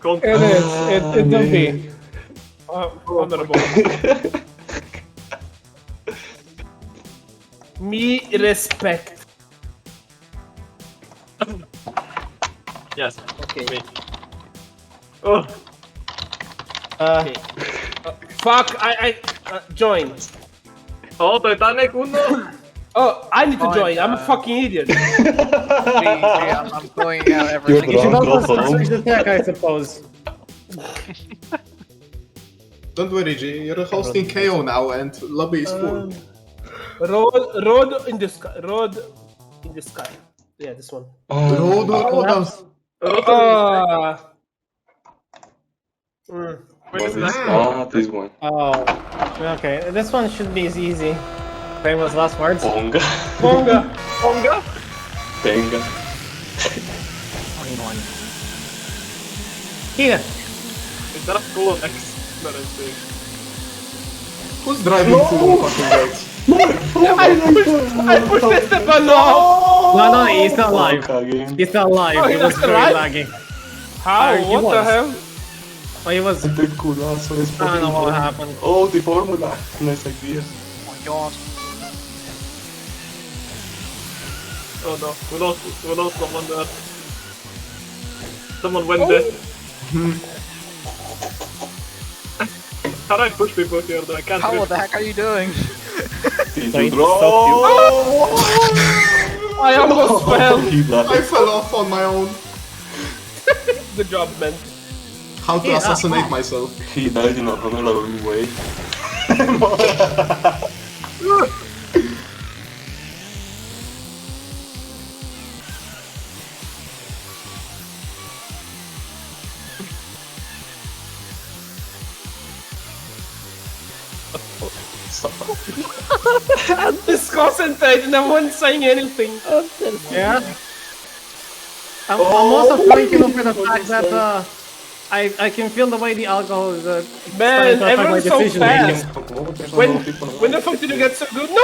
Kon- Evet, et, Edna Amin. Ah, Bey. Ah, Uh, honorable. Me respect. Yes. Okay. Me. Oh, Uh, uh, fuck, I, I uh, join. oh, Titanic uno. Oh, I need to Oh, join. I'm a uh, fucking idiot. I'm, I'm going out You're everything. the wrong console. attack, I suppose. Don't worry, G. You're hosting KO now, and lobby is full. Um, road, road in the sky. Road in the sky. Yeah, this one. Road Oh, or Odams? Uh, mm, Where is that? Ah, this one. Oh, okay. This one should be as easy. Famous last words. Ponga. Bonga. Ponga? Tenga. Here. Is that a full of X? That is big. Who's driving full fucking right? I pushed, I pushed Esteban off. No, no, he's not live. Ponga game. He's not live. Oh, he he's was not very live? laggy. How? Oh, he what the was. hell? Oh, he was. The culazo es I don't know what Ponga. happened. Oh, the formula. Nice idea. Oh my god. Oh no, we lost, we lost someone there. Someone went there. How do I push people here though? I can't do How it. the heck are you doing? Did So you it draw? I almost fell. He blocked I it. fell off on my own. Good job, man. How ah, to assassinate myself. He died in a honorable way. I'm just concentrating. I wasn't saying anything. Yeah. I'm, I'm also thanking him for the fact that uh, I I can feel the way the alcohol is. Uh, starting Man, to affect my everyone's so decision making. fast. When, when the fuck did you get so good? No!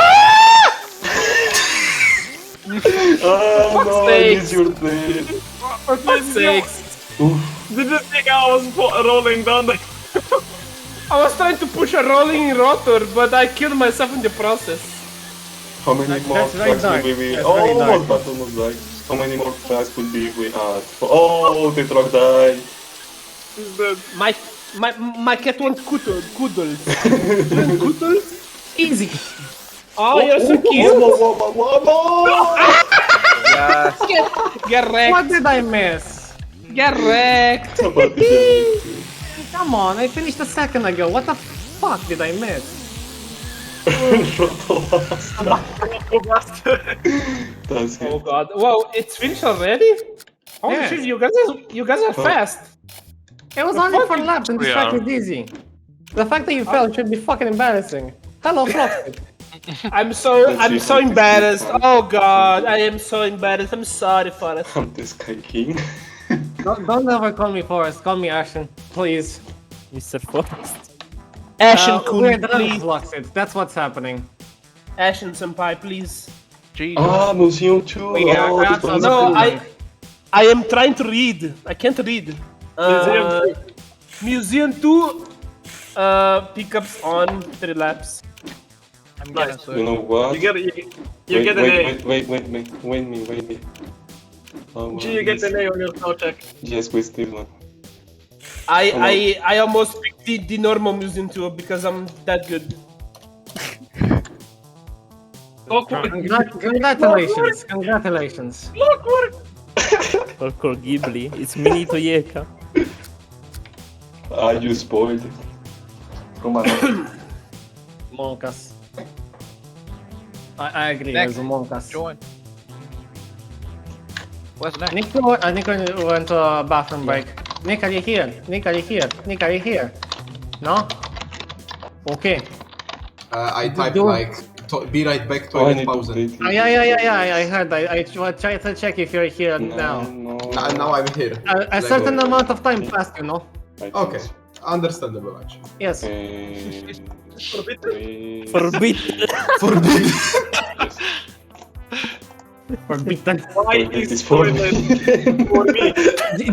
Oh no, sake. it's your play. For fuck's sakes. Oof. Did you think I was fo- rolling down the... I was trying to push a rolling rotor, but I killed myself in the process. How many That- more that's very tracks dark. will we That's very Oh, dark. but almost died. How many more tracks would be if we add? Oh, the truck died. He's dead. My my my cat wants cuddle, cuddles. cuddles? Easy. Oh, you're so cute. Whoa, whoa, whoa, whoa, whoa. Yes. Get wrecked. What did I miss? Get wrecked. Somebody did it. Come on, I finished a second ago. What the fuck did I miss? Oh, bastard. That's Oh good. god. Wow, it's finished already? Holy Yeah. shit, you guys are you guys are fast. It was only four laps and this Yeah. fact is easy. The fact that you fell should be fucking embarrassing. Hello, Frosted. I'm so Let's see I'm so how this embarrassed. goes. Oh god, I am so embarrassed. I'm sorry for it. I'm the Sky King. don't, don't ever call me Forrest, call me Ashen, please. Mr. Forest. Ashen Uh, Kun, we're done with please. Fluxed, that's what's happening. Ashen Senpai, please. Jesus. ah, Museum 2. We are oh, crafts the on Bronze the No, Age. I I am trying to read. I can't read. Uh, Museum Museum 2 uh, pickups on 3 laps. I'm getting Nice. You so. know what? You get a... You, you wait, get an A. wait, wait, wait, wait, wait, wait me, wait me. Oh, G, you get yes. an A on your spell check. Yes, we still one. I Come on. I I almost picked the, the normal Museum 2 because I'm that good. Clockwork. Congrat- Congratulations, congratulations. Clockwork. Or call Ghibli. It's Mini Toyeka. Ah, you spoiled it. Oh, Come on. Monkas. I, I agree, Next. there's a Monkas. Join. Where's next? Nick, go- I think I went to a bathroom break. Nick, are you here? Nick, are you here? Nick, are you here? No? Okay. Uh, I typed Don't- like, to- be right back, oh, I toilet need to pause. update it. and- Oh, yeah, yeah, yeah, yeah, I, I heard. I, I tr- tried to check if you're here No, now. Ah, no. Nah, now I'm here. A, a Like, certain uh, amount of time passed, you know? I think Okay, so. understandable actually. Yes. Eh, Forbid. Forbid. Forbidden. Why Forbid is is for toilet me. for me?